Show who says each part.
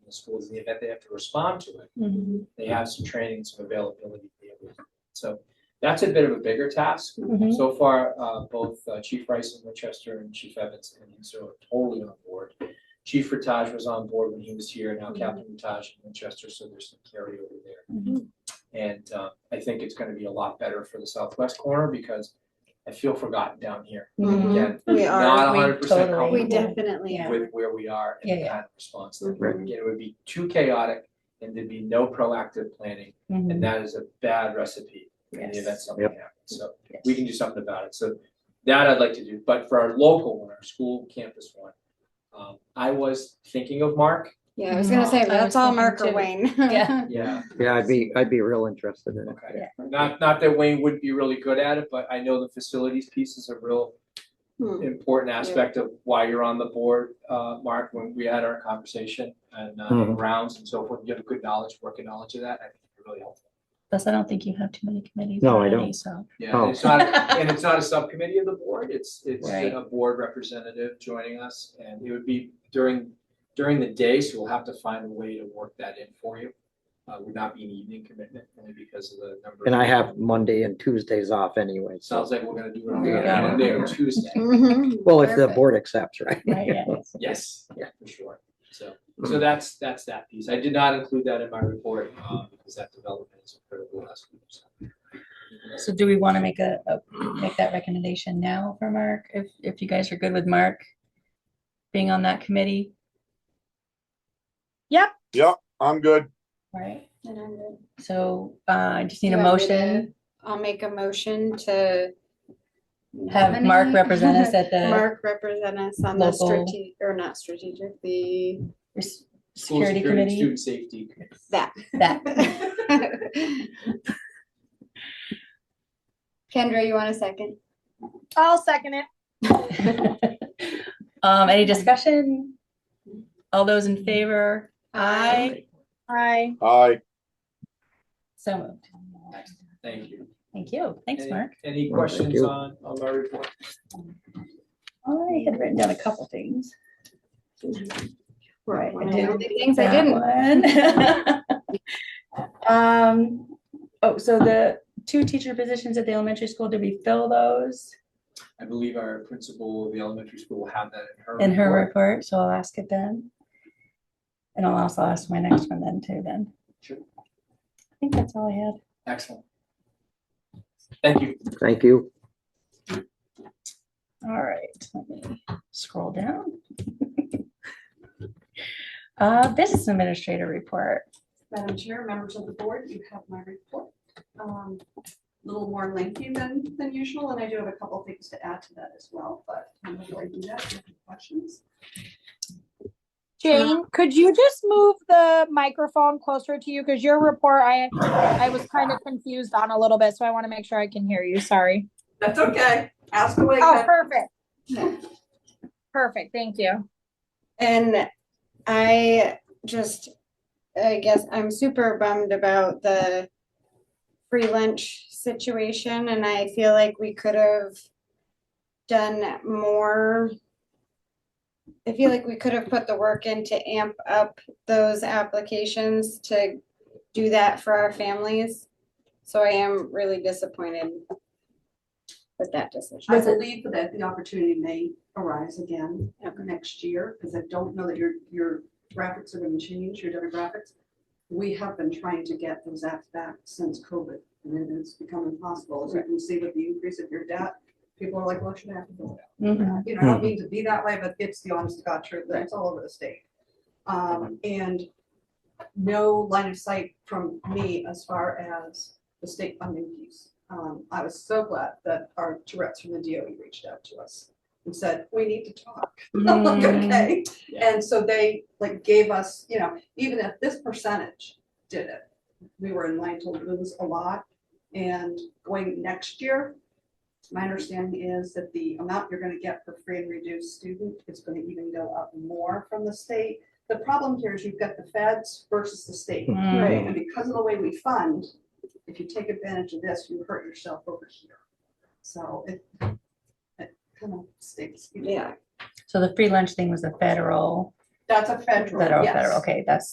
Speaker 1: in the schools, in the event they have to respond to it,
Speaker 2: Mhm.
Speaker 1: they have some training, some availability. to be able to do it. So that's a bit of a bigger task.
Speaker 3: Mm-hmm.
Speaker 2: Mhm.
Speaker 1: So far, uh, both uh, Chief Rice in Winchester and Chief Evans and Hinsdale are totally on board. Chief Rataj was on board when he was here,
Speaker 3: Mm-hmm.
Speaker 1: now Captain Rataj in Winchester, so there's some carryover there.
Speaker 2: Mhm.
Speaker 1: And uh, I think it's gonna be a lot better for the southwest corner because I feel forgotten down here.
Speaker 2: Mhm.
Speaker 1: Again, not
Speaker 3: We Mm-hmm. are,
Speaker 1: hundred percent
Speaker 2: totally-
Speaker 3: we
Speaker 1: comfortable
Speaker 3: definitely are.
Speaker 1: with where we are
Speaker 2: Yeah,
Speaker 1: and the
Speaker 2: yeah.
Speaker 1: kind of response that we're gonna get. It would be too chaotic and there'd be no proactive planning,
Speaker 2: Mhm.
Speaker 1: and that is a bad recipe in the
Speaker 2: Yes.
Speaker 1: event something happens. So
Speaker 2: Yes.
Speaker 1: we can do something about it. So that I'd like to do, but for our local one, our school campus one, um, I was thinking of Mark.
Speaker 3: Yeah, I was gonna say,
Speaker 2: I was
Speaker 3: that's all
Speaker 2: thinking
Speaker 3: Mark or
Speaker 2: too.
Speaker 3: Wayne.
Speaker 2: Yeah.
Speaker 1: Yeah.
Speaker 4: Yeah, I'd be, I'd be real interested in it.
Speaker 1: Okay. Not, not that Wayne wouldn't be really good at it, but I know the facilities piece is a real
Speaker 3: Hmm.
Speaker 1: important aspect of why you're on the board, uh, Mark, when we had our conversation and, uh,
Speaker 4: Mhm.
Speaker 1: rounds and so forth. You have a good knowledge, working knowledge of that. I think it's really helpful.
Speaker 2: Plus, I don't think you have too many committees.
Speaker 4: No, I
Speaker 2: already,
Speaker 4: don't.
Speaker 2: So.
Speaker 1: Yeah, and it's not, and it's not a subcommittee of the board, it's, it's
Speaker 2: Right.
Speaker 1: a board representative joining us, and it would be during, during the day, so we'll have to find a way to work that in for you. Uh, would not be an evening commitment, only because of the number. of
Speaker 4: And I
Speaker 1: people.
Speaker 4: have Monday and Tuesdays off anyway, so,
Speaker 1: Sounds like we're gonna do it on
Speaker 2: Yeah.
Speaker 1: Monday or Tuesday,
Speaker 3: Mhm.
Speaker 4: well, if the
Speaker 3: Perfect.
Speaker 4: board accepts, right?
Speaker 2: Right, yeah.
Speaker 1: yes,
Speaker 4: Yeah.
Speaker 1: for sure, so, so that's, that's that piece, I did not include that in my report, uh, because that development is critical last week, so.
Speaker 2: So do we want to make a, a- make that recommendation now for Mark, if, if you guys are good with Mark being on that committee,
Speaker 5: I'm good.
Speaker 2: right?
Speaker 3: And I'm good.
Speaker 2: So uh, I just need
Speaker 3: Do
Speaker 2: a
Speaker 3: you want me to
Speaker 2: motion,
Speaker 3: I'll make a motion to.
Speaker 2: have Mark represent us at the
Speaker 3: Mark represent us on the
Speaker 2: Local-
Speaker 3: strategic, or not strategic, the,
Speaker 2: res-
Speaker 1: School
Speaker 2: security committee.
Speaker 1: Student safety. committee.
Speaker 3: that.
Speaker 2: That,
Speaker 3: Kendra, you want a second?
Speaker 6: I'll second it.
Speaker 2: um, any discussion? All those in favor? Aye.
Speaker 6: Aye.
Speaker 5: Aye.
Speaker 2: So moved.
Speaker 1: Thank you.
Speaker 2: Thank you. Thanks,
Speaker 1: Any-
Speaker 2: Mark.
Speaker 1: Any
Speaker 4: Well, thank
Speaker 1: questions
Speaker 4: you.
Speaker 1: on, on my report?
Speaker 2: I had written down a couple things. Right, I
Speaker 3: One of
Speaker 2: didn't
Speaker 3: the Things I didn't.
Speaker 2: didn't. Um, oh, so the two teacher positions at the elementary school, did we fill those
Speaker 1: I believe our principal of the elementary school will have that in her.
Speaker 2: in her
Speaker 1: report.
Speaker 2: report? So I'll ask it then. And I'll also ask my next one then too then.
Speaker 1: Sure.
Speaker 2: I think that's all I had.
Speaker 1: Excellent. Thank you.
Speaker 4: Thank you.
Speaker 2: All right, let me scroll down. Uh, business administrator report.
Speaker 7: Madam Chair, members of the board, you have my report. Um, A Little more lengthy than, than usual, and I do have a couple things to add to that as well, but I'm going to do that. if you have Questions?
Speaker 6: Jane, could you just move the microphone closer to you? Because your report, I, I was kind of confused on a little bit, so I want to make sure I can hear you. Sorry.
Speaker 7: That's okay. Ask away.
Speaker 6: Oh, perfect. Perfect. Thank you.
Speaker 3: And I just, I guess I'm super bummed about the free lunch situation and I feel like we could have done more. I feel like we could have put the work in to amp up those applications to do that for our families. So I am really disappointed with that
Speaker 7: I
Speaker 3: decision.
Speaker 7: believe that the opportunity may arise again next year, because I don't know that your, your graphics are going to change, your demographics. We have been trying to get those apps back since COVID, and it has become impossible. As you can see with the increase of your debt, people are like, well, should I have to go? you know, I don't mean to be that way, but it's the honest to God truth, and it's all over the state. Um, and no line of sight from me as far as the state funding piece. Um, I was so glad that our Tourette's from the DOE reached out to us and said, we need to talk. I'm like,
Speaker 2: Mm. Mm-hmm.
Speaker 7: okay. And so they like gave us, you know, even if this percentage did it, we were in line to lose a lot. And going next year, my understanding is that the amount you're gonna get for free and reduced student is gonna even go up more from the state. The problem here is you've got the feds versus the state.
Speaker 2: Right.
Speaker 7: And because of the way we fund, if you take advantage of this, you hurt yourself over here. So it, it kind of stinks.
Speaker 3: Yeah.
Speaker 2: So the free lunch thing was the federal,
Speaker 7: That's a federal,
Speaker 2: federal,
Speaker 7: yes.
Speaker 2: federal. Okay, that's